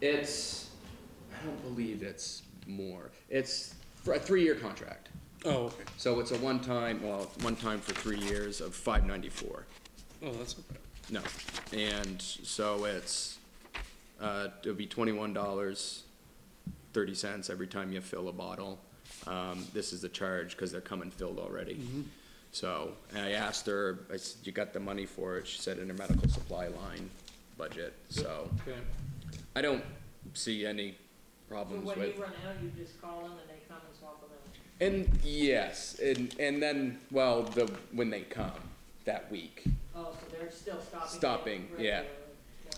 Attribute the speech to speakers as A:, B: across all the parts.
A: It's, I don't believe it's more. It's for a three-year contract.
B: Oh, okay.
A: So it's a one-time, well, one time for three years of five ninety-four.
B: Oh, that's okay.
A: No, and so it's, uh, it'll be twenty-one dollars, thirty cents every time you fill a bottle. Um, this is the charge, cause they're coming filled already. So, and I asked her, I said, you got the money for it? She said in her medical supply line budget, so
B: Okay.
A: I don't see any
C: But
A: problems with.
C: when you run out, you just call them and they come and swap them out.
A: And yes, and and then well, the when they come that week,
C: Oh, so they're still stopping. it
A: Stopping, yeah.
C: regularly.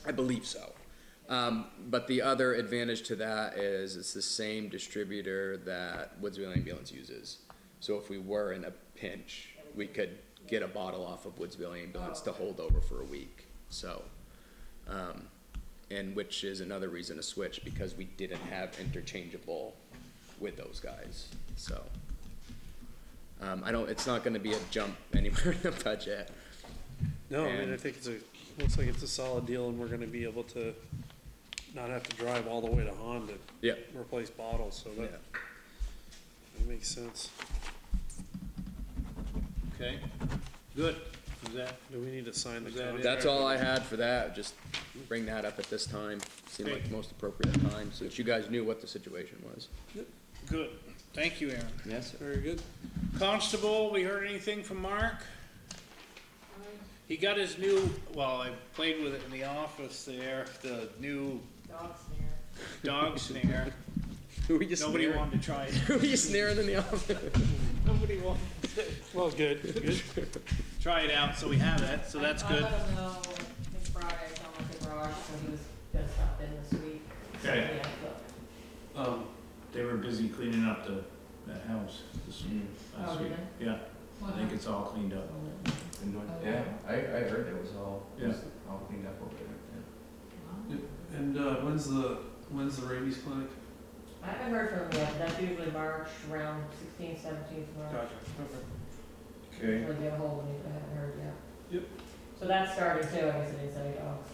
A: I believe so. Um, but the other advantage to that is it's the same distributor that Woodsville Ambulance uses. So if we were in a pinch, we could get a bottle off of Woodsville Ambulance to hold over for a week. So, um, and which is another reason to switch because we didn't have interchangeable with those guys. So. Um, I don't, it's not gonna be a jump anywhere in the budget.
B: No, I mean, I
A: And-
B: think it's a, looks like it's a solid deal and we're gonna be able to not have to drive all the way to Han to
A: Yeah.
B: replace bottles, so that, that makes sense.
D: Okay, good, is that,
B: Do we need to sign the
D: Is that it?
B: contract?
A: That's all I had for that, just bring that up at this time, seemed like the most appropriate time, so that you guys knew what the situation was.
D: good, thank you, Aaron.
A: Yes, sir.
B: Very good.
D: Constable, we heard anything from Mark? He got his new, well, I played with it in the office there, the new
C: Dog snare.
D: dog snare.
A: Who were you
D: Nobody
A: snaring?
D: wanted to try it,
A: Who were you snaring in the office?
D: nobody wanted
B: Well, good, good.
D: to try it out, so we have it, so
C: I-
D: that's good.
C: I let him know, it's Friday, I told him it's garage, so he was just up in this week. So,
E: Okay.
C: yeah, so-
E: Um, they were busy cleaning up the, that house this last
C: Oh,
E: week.
C: really?
E: Yeah, I think it's all cleaned up.
F: Yeah, I, I heard it was all, it was all cleaned up over there.
G: And uh, when's the when's the rabies clinic?
C: I haven't heard from him yet, that's usually March, around sixteenth, seventeenth March,
F: Okay.
C: when they get ahold of me, but I haven't heard yet.
G: Yep.
C: So that started too, I guess I oh, didn't say dogs,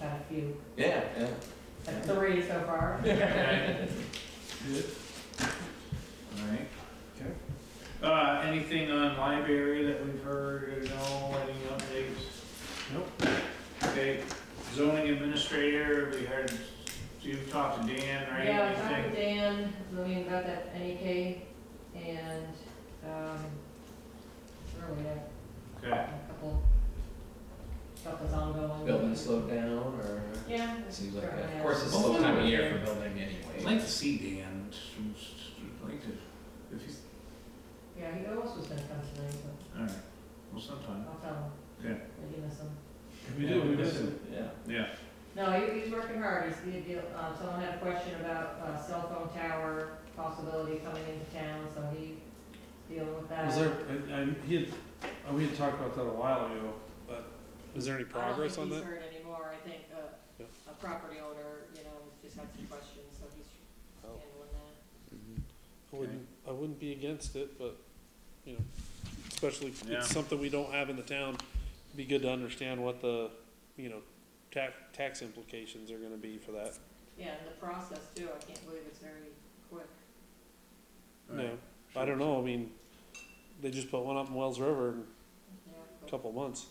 C: had a few,
F: Yeah, yeah.
C: had three so far.
E: Alright.
F: Okay.
E: Uh, anything on library that we've heard, at all? any updates?
B: Nope.
E: Okay, zoning administrator, we heard, you've talked to Dan, right?
C: Yeah, I
E: Anything?
C: talked to Dan, Lillian about that NEK, and, um, really, a
E: Okay,
C: couple, stuff is ongoing.
F: Building slowed down or?
C: Yeah.
F: It seems like, that.
C: Yeah.
F: of course, it's a slow time of year for building
E: I'd
F: anyway.
E: like to see Dan, I'd like to, if he's,
C: Yeah, he almost was gonna come tonight, but
E: alright, well, sometime,
C: I'll tell him.
E: Yeah.
C: That you miss him.
G: We do, we miss it.
F: Yeah.
E: yeah.
C: No, he, he's working hard, he's, he, he- uh, someone had a question about, uh, cell phone tower possibility coming into town, so he's dealing with that.
G: Was there? I, I, he had, uh, we had talked about that a while ago, but
B: Is there any progress on
C: I
B: that?
C: don't think Uh, he's heard anymore, I think,
B: Yeah.
C: uh, a property owner, you know, just had some questions, so he's
B: Oh.
C: handling that.
B: I wouldn't, I wouldn't be against it, but, you know, especially if
E: Yeah.
B: it's something we don't have in the town. it'd Be good to understand what the, you know, tax, tax implications are gonna be for that.
C: Yeah, and the process too, I can't believe it's very quick.
B: No, I don't know, I mean, they just put one up in Wells River in
C: Yeah,
B: a
C: but
B: couple months,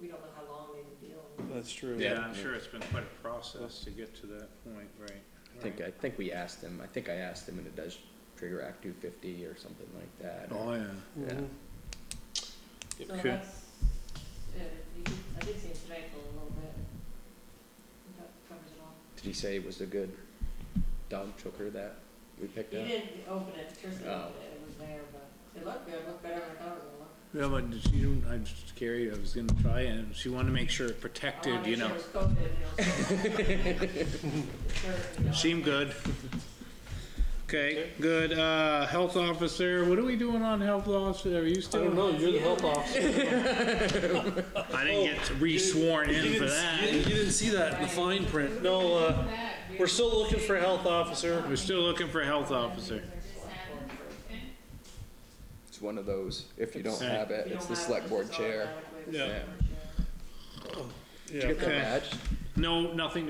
C: we don't know how long they've been dealing with it.
B: that's true.
A: Yeah.
D: Yeah, I'm sure it's been quite a process to get to that point, right?
A: I think, I think we asked him, I think I asked him, and it does trigger Act two fifty or something like that.
D: Oh, yeah.
A: Yeah.
B: Mhm.
C: So
D: Okay.
C: that's, uh, you- I did see it today for a little bit. That covers it all.
A: Did he say it was a good dog choker that we picked
C: You
A: up?
C: didn't open it, Tristan
A: Oh.
C: opened it, it was there, but it looked good, looked better than I thought it would look.
D: Yeah, but she didn't, I was scared, I was gonna try it, and she wanted to make sure it protected, you know.
C: I wanted to make sure it was coated, you know.
D: Seemed good. Okay, good, uh, health officer, what are we doing on health officer, are you
B: I
D: still?
B: don't know, you're the health officer.
D: I didn't get re-sworn in for
B: Oh, You
D: that.
B: didn't- you didn't see that in the fine print, no, uh, we're still looking for a health officer.
D: We're still looking for a health officer.
A: It's one of those, if you don't
D: It's-
A: have it,
C: If you
A: it's
C: don't
A: the
C: have it,
A: select
C: it's
A: board
C: just
A: chair.
C: automatically the
B: Yeah.
C: select board chair.
A: Did you
B: Yeah.
A: get the
D: Okay.
A: badge?
D: No, nothing